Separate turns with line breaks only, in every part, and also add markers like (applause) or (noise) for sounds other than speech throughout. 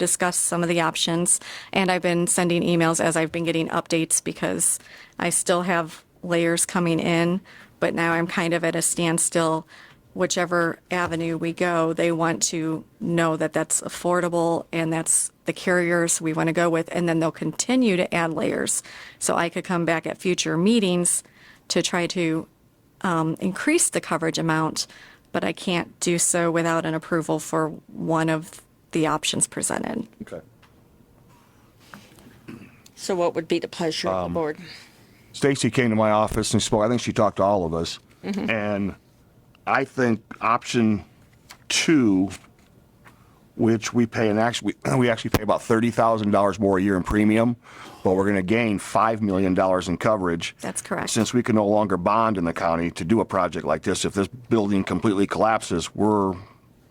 discuss some of the options. And I've been sending emails as I've been getting updates because I still have layers coming in, but now I'm kind of at a standstill. Whichever avenue we go, they want to know that that's affordable and that's the carriers we want to go with, and then they'll continue to add layers. So I could come back at future meetings to try to um, increase the coverage amount, but I can't do so without an approval for one of the options presented.
Okay.
So what would be the pleasure of the board?
Stacy came to my office and spoke. I think she talked to all of us. And I think option two, which we pay an actually, we, (clears throat) we actually pay about $30,000 more a year in premium, but we're going to gain $5 million in coverage.
That's correct.
Since we can no longer bond in the county to do a project like this, if this building completely collapses, we're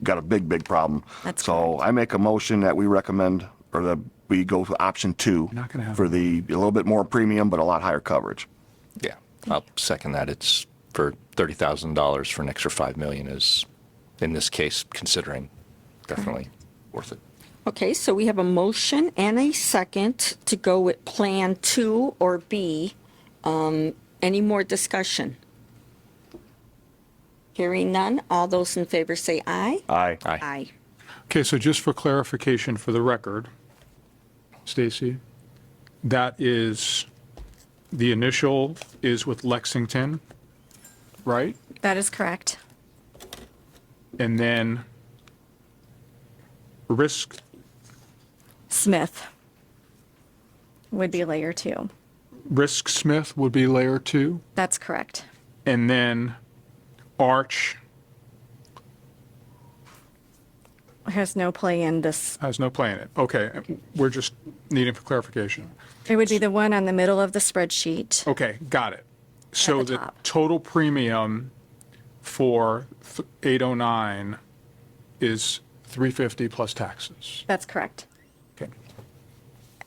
got a big, big problem.
That's
so I make a motion that we recommend or that we go to option two
Not gonna happen.
for the a little bit more premium but a lot higher coverage.
Yeah, I'll second that. It's for thirty thousand dollars for an extra five million is, in this case, considering definitely worth it.
Okay, so we have a motion and a second to go with Plan 2 or B. Um, Any more discussion? Hearing none, all those in favor say aye.
Aye.
Aye.
Aye.
Okay, so just for clarification for the record, Stacy, that is, the initial is with Lexington, right?
That is correct.
And then risk,
Smith would be layer two.
Risk Smith would be layer two,
That's correct.
and then Arch
Has no play in this.
has no planet. Okay, we're just needing for clarification.
It would be the one on the middle of the spreadsheet.
Okay, got it. So
the
the
top.
total premium for th- 809 is 350 plus taxes.
That's correct.
Okay.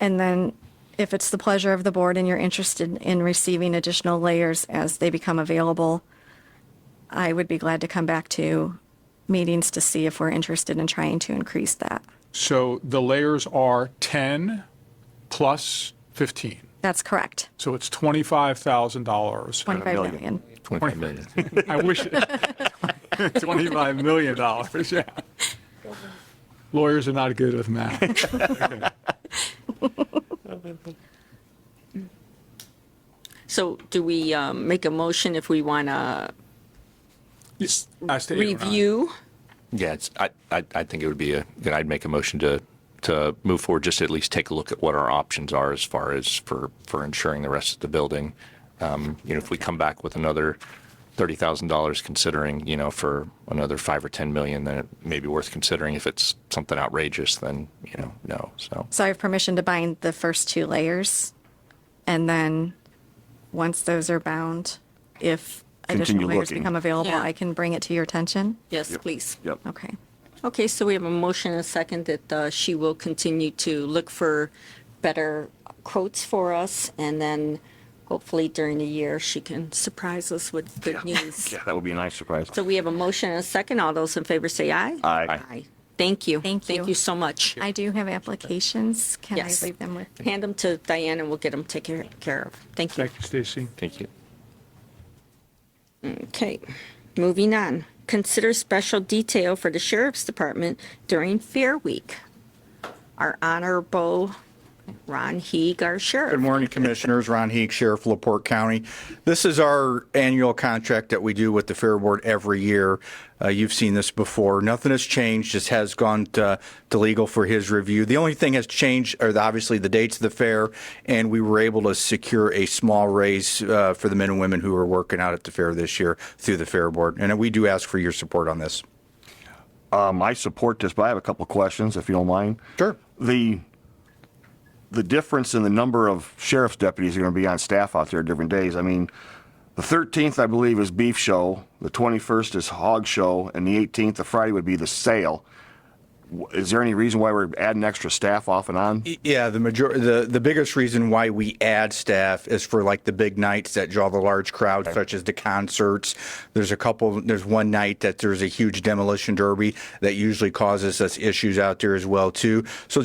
And then if it's the pleasure of the board and you're interested in receiving additional layers as they become available, I would be glad to come back to meetings to see if we're interested in trying to increase that.
So the layers are 10 plus 15.
That's correct.
So it's $25,000.
25
million.
million.
Twenty-five million.
I wish, it- $25 million, dollars, yeah. Lawyers are not good with math.
So do we um, make a motion if we want to
As to 809.
review?
(laughs) Yeah, it's, I, I, I think it would be a, then I'd make a motion to, to move forward, just at least take a look at what our options are as far as for, for insuring the rest of the building. Um, you know, if we come back with another thirty thousand dollars, considering, you know, for another five or ten million, then it may be worth considering. If it's something outrageous, then, you know, no, so.
So I have permission to bind the first two layers. And then, once those are bound, if additional
Continue
layers
looking.
become available,
Yeah.
I can bring it to your attention.
Yes, please.
Yep.
Okay.
Okay, so we have a motion and a second that uh, she will continue to look for better quotes for us, and then hopefully during the year, she can surprise us with good news.
Yeah, that would be a nice surprise.
So we have a motion and a second. All those in favor say aye.
Aye.
Aye. Thank you.
Thank you.
Thank you so much.
I do have applications. Can I
Yes.
leave them with?
Hand them to Diane, and we'll get them taken care of. Thank you.
Thank you, Stacy.
Thank you.
Okay, moving on. Consider special detail for the sheriff's department during Fair Week. Our honorable Ron Heeg, our sheriff.
Good morning, Commissioners. Ron Heek, Sheriff of LaPorte County. This is our annual contract that we do with the Fair Board every year. Uh, You've seen this before. Nothing has changed. This has gone to to legal for his review. The only thing has changed are the- obviously the dates of the fair, and we were able to secure a small raise uh, for the men and women who are working out at the fair this year through the Fair Board. And we do ask for your support on this.
Um, I support this, but I have a couple of questions if you don't mind.
Sure.
The the difference in the number of sheriff's deputies are going to be on staff out there different days. I mean, the 13th I believe is beef show, the 21st is hog show, and the 18th, the Friday would be the sale. W- Is there any reason why we're adding extra staff off and on?
Yeah, the major, the, the biggest reason why we add staff is for like the big nights that draw the large crowd, such as the concerts. There's a couple, there's one night that there's a huge demolition derby that usually causes us issues out there as well too. So